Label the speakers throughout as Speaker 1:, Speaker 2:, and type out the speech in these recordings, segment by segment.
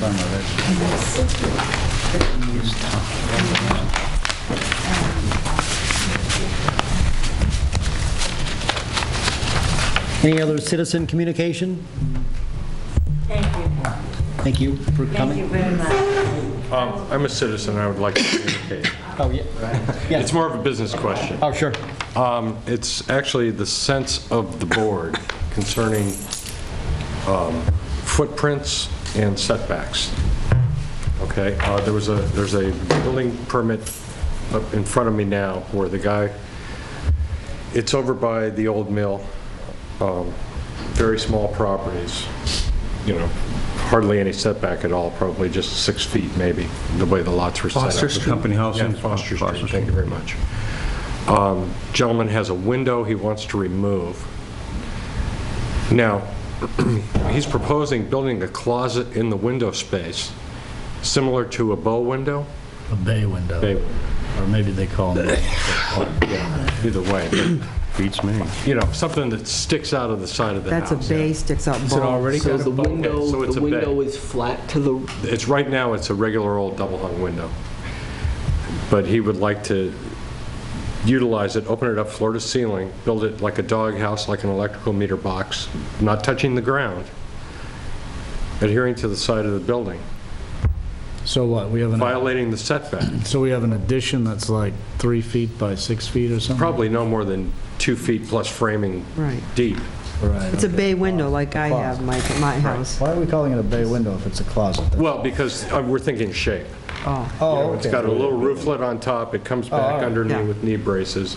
Speaker 1: done with it.
Speaker 2: Any other citizen communication?
Speaker 3: Thank you.
Speaker 2: Thank you for
Speaker 3: Thank
Speaker 2: coming.
Speaker 3: you very much.
Speaker 4: Um, I'm a citizen, I would like to communicate.
Speaker 2: Oh, yeah.
Speaker 4: It's more of a business question.
Speaker 2: Oh, sure.
Speaker 4: Um, It's actually the sense of the board concerning um, footprints and setbacks. Okay, uh, there was a, there's a building permit up in front of me now where the guy, it's over by the old mill, um, very small properties, you know, hardly any setback at all, probably just six feet maybe, the way the lots were set up.
Speaker 1: Foster Street. Company house
Speaker 4: Yeah,
Speaker 1: in-
Speaker 4: Foster
Speaker 1: Foster
Speaker 4: Street, thank you very much. Um, Gentleman has a window he wants to remove. Now, he's proposing building a closet in the window space, similar to a bow window,
Speaker 5: A bay window.
Speaker 4: Bay-
Speaker 5: Or maybe they call them,
Speaker 4: either way, but,
Speaker 1: Beats me.
Speaker 4: you know, something that sticks out of the side of the house.
Speaker 6: That's a bay sticks out
Speaker 4: it
Speaker 6: ball.
Speaker 4: already
Speaker 7: So the window,
Speaker 4: so it's
Speaker 7: the
Speaker 4: a bay.
Speaker 7: window is flat to the,
Speaker 4: It's, right now, it's a regular old double-hung window. But he would like to utilize it, open it up floor to ceiling, build it like a doghouse, like an electrical meter box, not touching the ground, adhering to the side of the building,
Speaker 5: so what, we have an,
Speaker 4: violating the setback,
Speaker 5: so we have an addition that's like three feet by six feet or something?
Speaker 4: probably no more than two feet plus framing
Speaker 6: Right.
Speaker 4: deep.
Speaker 5: Right.
Speaker 6: It's a bay window like I have my, my house.
Speaker 8: Why are we calling it a bay window if it's a closet?
Speaker 4: Well, because uh, we're thinking shape.
Speaker 6: Oh,
Speaker 4: You
Speaker 8: Oh,
Speaker 4: know, It's got a
Speaker 8: okay.
Speaker 4: little rooflet on top, it comes
Speaker 8: all
Speaker 4: back
Speaker 8: right.
Speaker 4: underneath
Speaker 6: Yeah.
Speaker 4: with knee braces,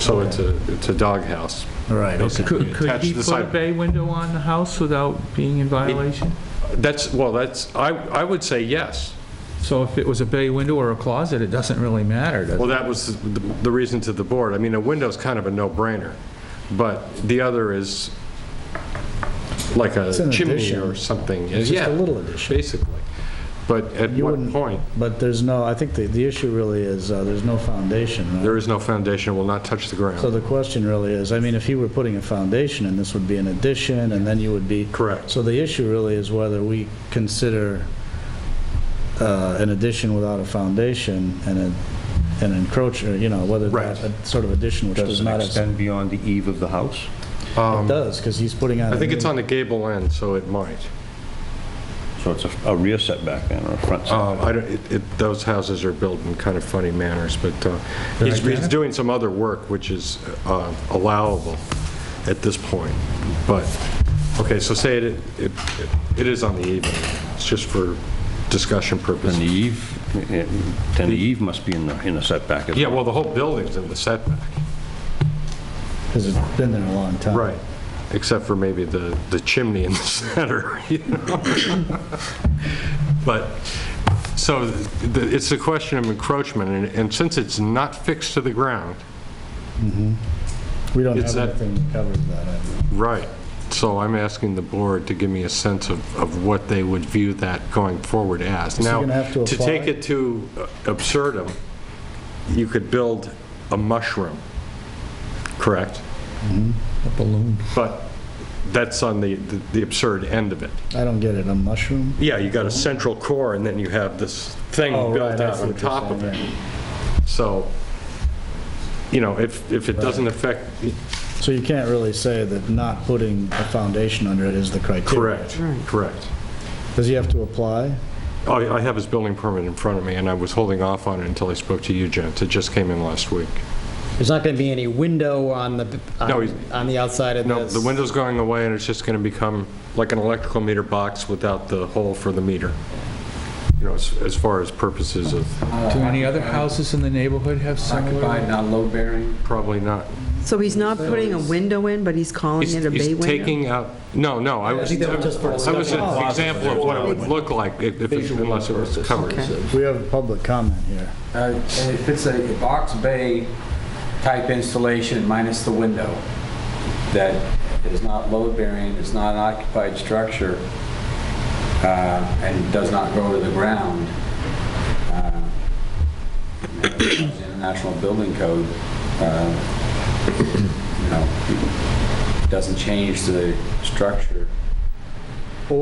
Speaker 4: so it's a, it's a doghouse.
Speaker 5: Right, okay.
Speaker 9: Could could
Speaker 4: Attached
Speaker 9: he
Speaker 4: to the
Speaker 9: put a
Speaker 4: side.
Speaker 9: bay window on the house without being in violation?
Speaker 4: That's, well, that's, I, I would say yes.
Speaker 9: So if it was a bay window or a closet, it doesn't really matter, does it?
Speaker 4: Well, that was the the reason to the board. I mean, a window's kind of a no-brainer, but the other is like
Speaker 8: an
Speaker 4: a chimney
Speaker 8: addition.
Speaker 4: or something.
Speaker 8: It's just
Speaker 4: Yeah,
Speaker 8: a little addition.
Speaker 4: Basically. But at
Speaker 8: You
Speaker 4: what
Speaker 8: wouldn't-
Speaker 4: point?
Speaker 8: But there's no, I think the, the issue really is, uh, there's no foundation,
Speaker 4: There
Speaker 8: right?
Speaker 4: is no foundation, will not touch the
Speaker 8: So
Speaker 4: ground.
Speaker 8: the question really is, I mean, if you were putting a foundation, and this would be an addition, and then you would be...
Speaker 4: Correct.
Speaker 8: So the issue really is whether we consider uh, an addition without a foundation and a- an encroacher, you know, whether
Speaker 4: Right.
Speaker 8: that sort of addition, which does
Speaker 1: Does it
Speaker 8: not, have-
Speaker 1: extend beyond the eve of the house?
Speaker 8: it does, because he's putting on...
Speaker 4: Um, I
Speaker 8: a
Speaker 4: think
Speaker 8: new-
Speaker 4: it's on the gable end, so it might.
Speaker 1: So it's a- a rear setback then, or a front setback?
Speaker 4: Uh, I don't, it- it, those houses are built in kind of funny manners, but uh, he's, he's doing some other work which is uh, allowable at this point, but, okay, so say it, it, it is on the even, it's just for discussion
Speaker 1: Then the e-
Speaker 4: purposes.
Speaker 1: eve, eh, then the eve must be in the, in the setback as well.
Speaker 4: Yeah, well, the whole building's in the setback.
Speaker 8: Because it's been there a long time.
Speaker 4: Except for maybe the, the chimney in the center, you know? But, so, the- it's a question of encroachment, and- and since it's not fixed to the ground,
Speaker 8: We don't
Speaker 4: It's
Speaker 8: have
Speaker 4: that-
Speaker 8: anything that covers that, I think.
Speaker 4: Right. So I'm asking the board to give me a sense of, of what they would view that going forward as.
Speaker 8: he
Speaker 4: Now,
Speaker 8: gonna have to
Speaker 4: to take
Speaker 8: apply?
Speaker 4: it to uh, absurdum, you could build a mushroom, correct?
Speaker 8: Mm-hmm.
Speaker 4: A balloon. But that's on the, the absurd end of it.
Speaker 8: I don't get it, a mushroom?
Speaker 4: Yeah, you got a central core, and then you have this thing
Speaker 8: Oh, right,
Speaker 4: built
Speaker 8: I
Speaker 4: out
Speaker 8: see
Speaker 4: on
Speaker 8: what you're
Speaker 4: top of
Speaker 8: saying,
Speaker 4: it. So, you know, if, if it doesn't affect,
Speaker 8: So you can't really say that not putting a foundation under it is the criteria?
Speaker 4: correct, correct.
Speaker 8: Does he have to apply?
Speaker 4: I I have his building permit in front of me, and I was holding off on it until I spoke to you, gents. It just came in last week.
Speaker 10: There's not going to be any window on the,
Speaker 4: No, he's-
Speaker 10: on- on the outside of
Speaker 4: No,
Speaker 10: this?
Speaker 4: the window's going away, and it's just going to become like an electrical meter box without the hole for the meter, you know, as as far as purposes of,
Speaker 9: Do any other houses in the neighborhood have similar?
Speaker 7: not load bearing.
Speaker 4: probably not.
Speaker 6: so he's not putting a window in, but he's calling
Speaker 4: He's
Speaker 6: it a bay
Speaker 4: he's
Speaker 6: window?
Speaker 4: taking out, no, no, I was, I was an example of what it would look like if- if it- unless it was covered.
Speaker 8: We have a public comment here.
Speaker 11: Uh, If it's a box bay type installation minus the window, that is not load bearing, is not an occupied structure, uh, and does not go to the ground, uh, International Building Code, uh, you know, doesn't change the structure.